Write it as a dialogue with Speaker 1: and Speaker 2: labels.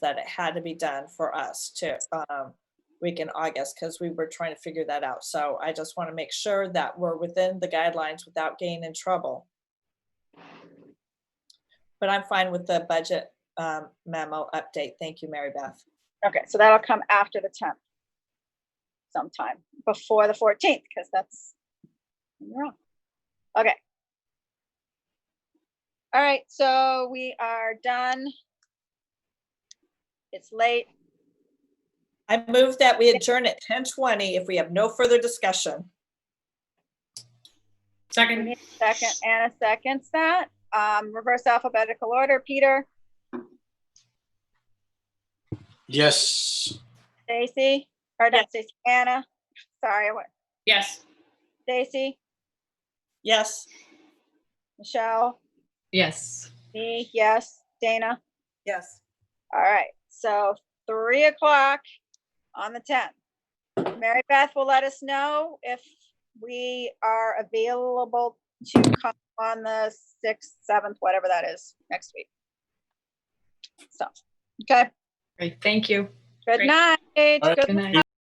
Speaker 1: that it had to be done for us to, um, week in August, because we were trying to figure that out. So I just want to make sure that we're within the guidelines without getting in trouble. But I'm fine with the budget um, memo update. Thank you, Mary Beth.
Speaker 2: Okay, so that'll come after the tenth. Sometime before the fourteenth, because that's you're wrong. Okay. All right, so we are done. It's late.
Speaker 1: I move that we adjourn at 10:20 if we have no further discussion.
Speaker 3: Second,
Speaker 2: Second, Anna seconds that. Um, reverse alphabetical order. Peter,
Speaker 4: Yes.
Speaker 2: Stacy, or not Stacy, Anna. Sorry, what?
Speaker 3: yes.
Speaker 2: Stacy,
Speaker 1: Yes,
Speaker 2: Michelle,
Speaker 3: Yes.
Speaker 2: me, yes, Dana.
Speaker 5: Yes.
Speaker 2: All right, so three o'clock on the tenth. Mary Beth will let us know if we are available to come on the sixth, seventh, whatever that is, next week. So, okay,
Speaker 3: Great, thank you.
Speaker 2: good
Speaker 3: Great.
Speaker 2: night.
Speaker 4: All right.
Speaker 2: Good
Speaker 3: Good night.
Speaker 4: Be